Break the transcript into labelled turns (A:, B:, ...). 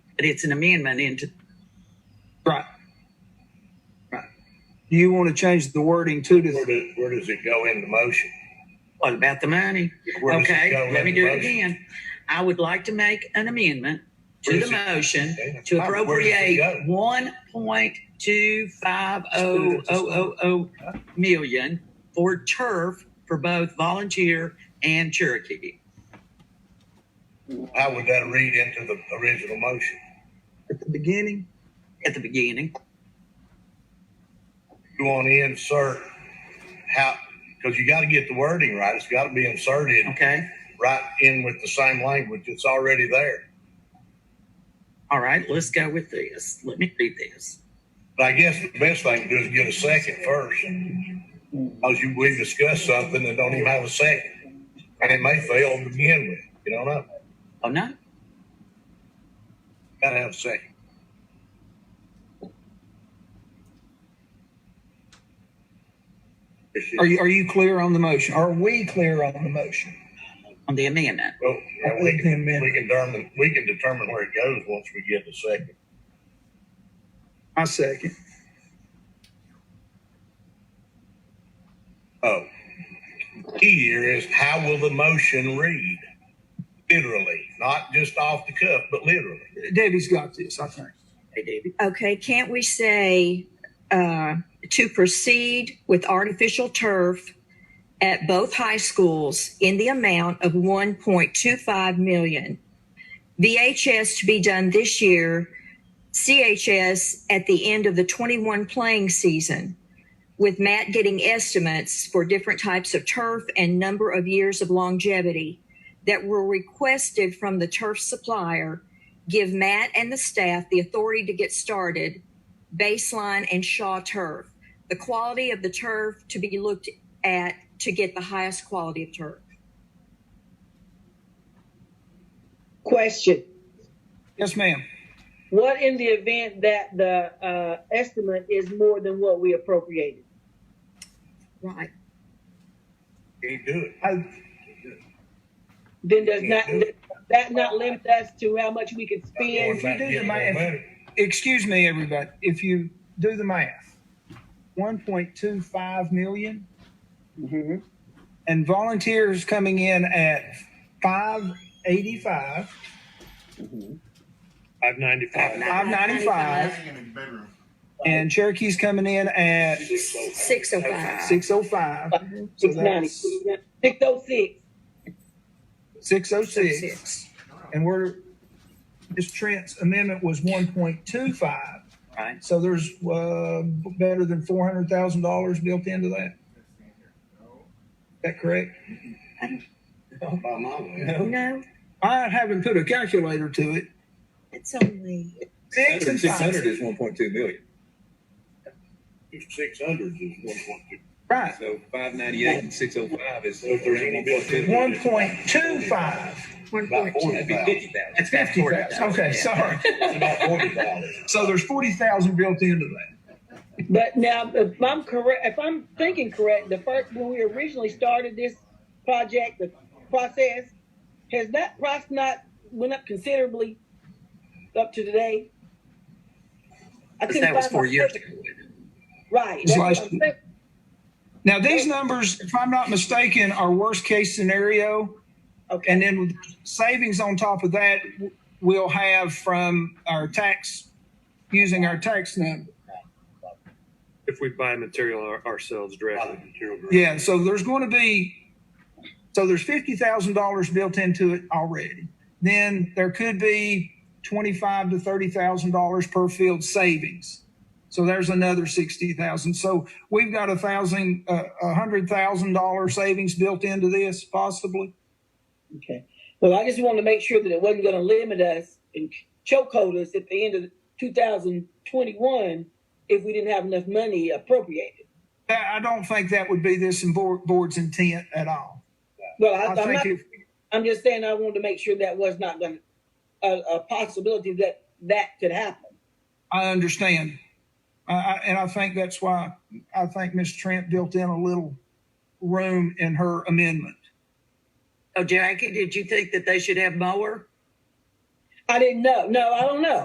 A: but it's an amendment into,
B: Right. Right. You want to change the wording to
C: Where
B: the,
C: does, where does it go in the motion?
A: what about the money?
C: Where does it go
A: Okay,
C: in
A: let me
C: the
A: do it
C: motion?
A: again. I would like to make an amendment
C: Where
A: to the
C: does it-
A: motion
C: Okay.
A: to
C: Where does it
A: appropriate
C: go?
A: one point two five oh oh oh oh million for turf for both volunteer and Cherokee.
C: How would that read into the original motion?
B: at the beginning?
A: at the beginning.
C: You want to insert how, because you got to get the wording right. It's got to be inserted
A: Okay.
C: right in with the same language. It's already there.
A: All right. Let's go with this. Let me read this.
C: But I guess the best thing to do is get a second first. Because you, we discussed something and don't even have a second. And it may fail to begin with. You don't know.
A: Oh no.
C: Got to have a second.
B: Are you, are you clear on the motion? Are we clear on the motion?
A: On the amendment.
C: Well, yeah,
B: I
C: we
B: think
C: can,
B: they meant-
C: we can determine, we can determine where it goes once we get the second.
B: I second.
C: Oh. Key here is how will the motion read? Literally, not just off the cuff, but literally.
B: Debbie's got this, I think.
A: Hey, David.
D: Okay, can't we say uh, to proceed with artificial turf at both high schools in the amount of 1.25 million? VHS to be done this year, CHS at the end of the 21 playing season, with Matt getting estimates for different types of turf and number of years of longevity that were requested from the turf supplier give Matt and the staff the authority to get started, baseline and Shaw turf. The quality of the turf to be looked at to get the highest quality of turf.
E: Question.
B: Yes, ma'am.
E: What in the event that the uh, estimate is more than what we appropriated?
D: Right.
C: Can't do it.
B: I,
E: Then does not, does that not limit us to how much we can
C: Going back
E: spend?
B: do
C: and
B: the
C: getting
B: math-
C: more money.
B: excuse me, everybody, if you do the math, one point two five million and volunteers coming in at five eighty-five,
F: Five ninety-five.
B: five ninety-five, and Cherokee's coming in at
D: Six oh five.
B: six oh five. So
E: Six ninety,
B: that's
E: six oh six.
B: six oh six.
D: Six.
B: And we're, Ms. Trent's amendment was one point two five.
A: Right.
B: So there's, uh, better than four hundred thousand dollars built into that? Is that correct?
C: Not by my way.
D: No,
B: I haven't put a calculator to it.
D: it's only.
B: Six and
G: Six hundred
B: five.
G: is one point two million,
C: Six hundred is one point two.
B: Right.
G: so five ninety-eight and six oh five is
C: So if there's any
G: around one point two.
B: One point two
C: business-
B: five.
D: One
C: About
D: point two.
G: That'd be fifty thousand.
A: That's about
B: Fifty
A: 40,000.
B: thousand. Okay, sorry.
C: It's about forty dollars.
B: So there's forty thousand built into that.
E: But now, if I'm correct, if I'm thinking correct, the first, when we originally started this project, the process, has that price not went up considerably up to today? I
A: Because
E: couldn't
A: that was
E: find
A: four
E: my
A: years ago.
E: paper. Right.
B: It's
E: that's what
B: last
E: I'm saying.
B: Now, these numbers, if I'm not mistaken, are worst case scenario.
E: Okay.
B: And then with savings on top of that, we'll have from our tax, using our tax number.
F: If we buy material our- ourselves directly.
B: Yeah, so there's going to be, so there's fifty thousand dollars built into it already. Then there could be twenty-five to thirty thousand dollars per field savings. So there's another sixty thousand. So we've got a thousand, uh, a hundred thousand dollar savings built into this possibly.
E: Okay. Well, I just wanted to make sure that it wasn't going to limit us and chokehold us at the end of 2021 if we didn't have enough money appropriated.
B: That, I don't think that would be this board, board's intent at all.
E: Well, I,
B: I
E: I'm
B: think
E: not.
B: if,
E: I'm just saying I wanted to make sure that was not going to a, a possibility that that could happen.
B: I understand. I, I, and I think that's why I think Ms. Trent built in a little room in her amendment.
A: Oh, Jackie, did you think that they should have mower?
E: I didn't know. No, I don't know.